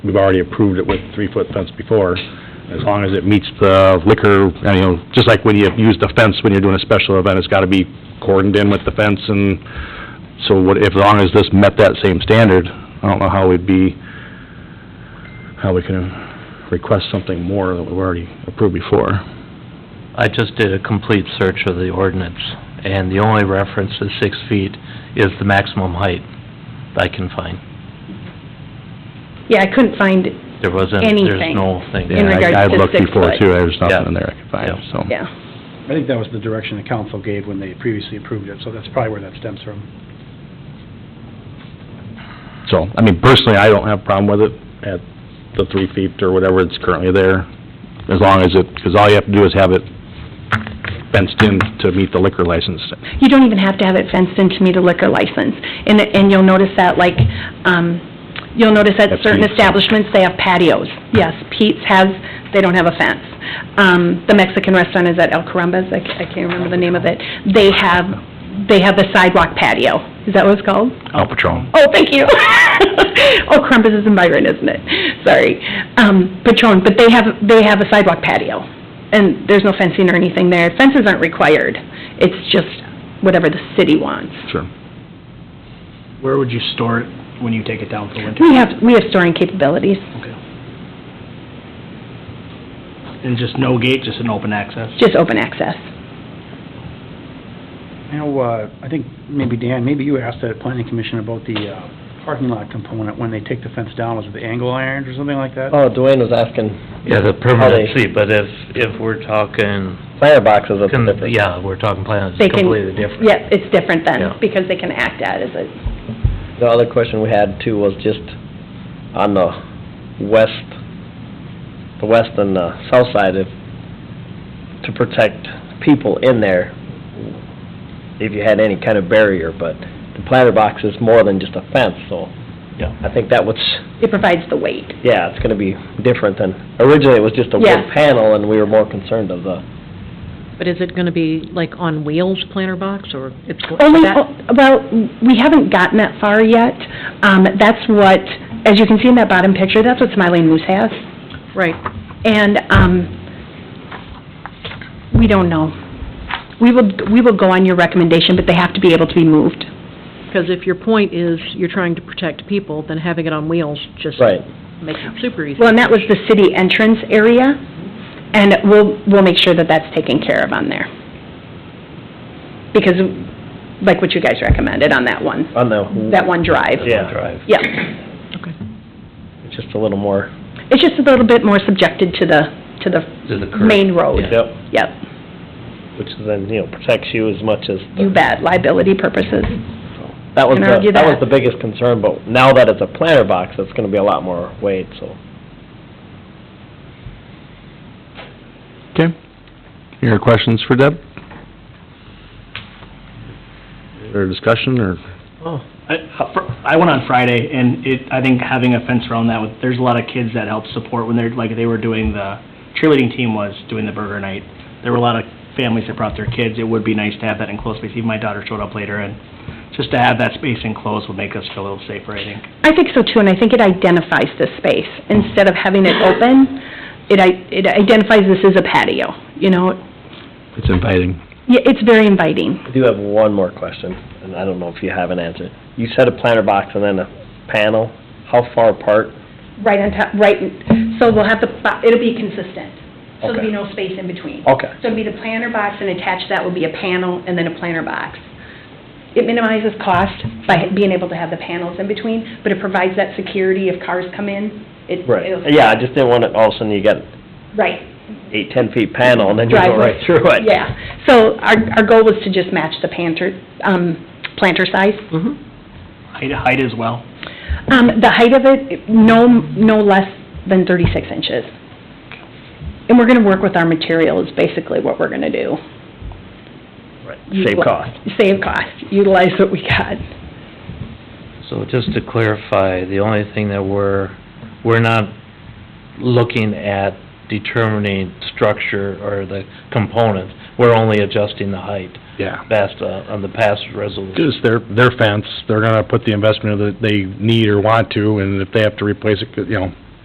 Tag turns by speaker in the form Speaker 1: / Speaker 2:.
Speaker 1: we've already approved it with three-foot fence before, as long as it meets the liquor, and, you know, just like when you use the fence when you're doing a special event, it's gotta be cordoned in with the fence and, so what, if, as long as this met that same standard, I don't know how we'd be, how we can request something more that we've already approved before.
Speaker 2: I just did a complete search of the ordinance, and the only reference to six feet is the maximum height I can find.
Speaker 3: Yeah, I couldn't find,
Speaker 2: There wasn't, there's
Speaker 3: Anything.
Speaker 2: no thing.
Speaker 3: In
Speaker 1: Yeah, I-
Speaker 3: regards to six
Speaker 1: I've looked before
Speaker 3: foot.
Speaker 1: too, there's nothing
Speaker 2: Yeah.
Speaker 1: in there I could find,
Speaker 2: Yeah.
Speaker 1: so.
Speaker 3: yeah.
Speaker 4: I think that was the direction the council gave when they previously approved it, so that's probably where that stems from.
Speaker 1: So, I mean, personally, I don't have a problem with it at the three feet or whatever it's currently there, as long as it, because all you have to do is have it fenced in to meet the liquor license.
Speaker 3: You don't even have to have it fenced in to meet a liquor license. And, and you'll notice that, like, um, you'll notice that
Speaker 1: At
Speaker 3: certain
Speaker 1: Pete's.
Speaker 3: establishments, they have patios. Yes, Pete's has, they don't have a fence. Um, the Mexican restaurant is at El Carambas, I ca- I can't remember the name of it. They have, they have the sidewalk patio. Is that what it's called?
Speaker 1: I'll patrol.
Speaker 3: Oh, thank you. Oh, Crumpus is in Byron, isn't it? Sorry. Um, Patron, but they have, they have a sidewalk patio, and there's no fencing or anything there. Fences aren't required. It's just whatever the city wants.
Speaker 1: Sure.
Speaker 4: Where would you store it when you take it down for winter?
Speaker 3: We have, we have storing capabilities.
Speaker 4: And just no gate, just an open access?
Speaker 3: Just open access.
Speaker 4: You know, uh, I think maybe Dan, maybe you asked that planning commission about the uh, parking lot component, when they take the fence down, was it the angle irons or something like that?
Speaker 5: Oh, Dwayne was asking,
Speaker 2: Yeah, the
Speaker 5: permanent
Speaker 2: permanency, but if, if we're talking,
Speaker 5: firebox is a
Speaker 2: con-
Speaker 5: different.
Speaker 2: yeah, we're talking plans,
Speaker 3: They
Speaker 2: it's
Speaker 3: can-
Speaker 2: completely different.
Speaker 3: Yeah, it's different
Speaker 2: Yeah.
Speaker 3: then, because they can act out as a,
Speaker 5: The other question we had too was just on the west, the west and the south side of, to protect people in there, if you had any kind of barrier, but the platter box is more than just a fence, so
Speaker 2: Yeah.
Speaker 5: I think that was,
Speaker 3: it provides the weight.
Speaker 5: yeah, it's gonna be different than, originally it was just a wood
Speaker 3: Yeah.
Speaker 5: panel and we were more concerned of the
Speaker 6: But is it going to be like on wheels planter box, or it's going
Speaker 3: Only, oh,
Speaker 6: that?
Speaker 3: well, we haven't gotten that far yet. Um, that's what, as you can see in that bottom picture, that's what Smiling Moose has.
Speaker 6: Right,
Speaker 3: And, um, we don't know. We will, we will go on your recommendation, but they have to be able to be moved.
Speaker 6: because if your point is you're trying to protect people, then having it on wheels just
Speaker 5: Right.
Speaker 6: makes it super easy.
Speaker 3: Well, and that was the city entrance area, and we'll, we'll make sure that that's taken care of on there. Because, like what you guys recommended on that one,
Speaker 5: on the.
Speaker 3: that one drive.
Speaker 5: Yeah. Drive.
Speaker 3: Yeah.
Speaker 6: Okay.
Speaker 5: It's just a little more.
Speaker 3: It's just a little bit more subjected to the, to the
Speaker 2: To the curb.
Speaker 3: main road.
Speaker 2: Yeah.
Speaker 5: Yep.
Speaker 3: Yep,
Speaker 5: Which then, you know, protects you as much as. the-
Speaker 3: you bet, liability purposes.
Speaker 5: That was
Speaker 3: can
Speaker 5: the,
Speaker 3: argue
Speaker 5: that was
Speaker 3: that.
Speaker 5: the biggest concern, but now that it's a planter box, it's gonna be a lot more weight, so.
Speaker 1: Okay. Any other questions for Deb? Or discussion, or?
Speaker 7: I fr- Oh, I went on Friday, and it, I think having a fence around that, with- there's a lot of kids that help support when they're, like, they were doing the, cheerleading team was doing the burger night. There were a lot of families that brought their kids. It would be nice to have that enclosed space. Even my daughter showed up later, and just to have that space enclosed would make us feel a little safer, I think.
Speaker 3: I think so too, and I think it identifies the space. Instead of having it open, it i- it identifies this as a patio, you know?
Speaker 1: It's inviting.
Speaker 3: Yeah, it's very inviting.
Speaker 5: I do have one more question, and I don't know if you have an answer. You said a planter box and then a panel, how far apart?
Speaker 3: Right on top, right, so we'll have the, bo- it'll be consistent. So there'll be
Speaker 5: Okay. Oh.
Speaker 3: no space in between.
Speaker 5: Okay.
Speaker 3: So it'll be the planter box, and attached to that will be a panel, and then a planter box. It minimizes cost by being able to have the panels in between, but it provides that security if cars come in. It- it'll-
Speaker 5: Yeah, I just didn't want it, all of a sudden you got
Speaker 3: Right,
Speaker 5: eight, ten feet panel and then you go
Speaker 3: Driveway.
Speaker 5: right through it.
Speaker 3: Yeah, so our, our goal was to just match the planter, um, planter size.
Speaker 5: Mm-hmm.
Speaker 7: Height, height as well.
Speaker 3: Um, the height of it, no, no less than thirty-six inches. And we're gonna work with our material is basically what we're gonna do.
Speaker 5: Right, Save cost.
Speaker 3: Save cost, utilize what we got.
Speaker 2: So just to clarify, the only thing that we're, we're not looking at determining structure or the components, we're only adjusting the height.
Speaker 1: Yeah.
Speaker 2: That's uh, on the past resolution.
Speaker 1: Because their, their fence, they're gonna put the investment that they need or want to, and if they have to replace it, 'cause, you know,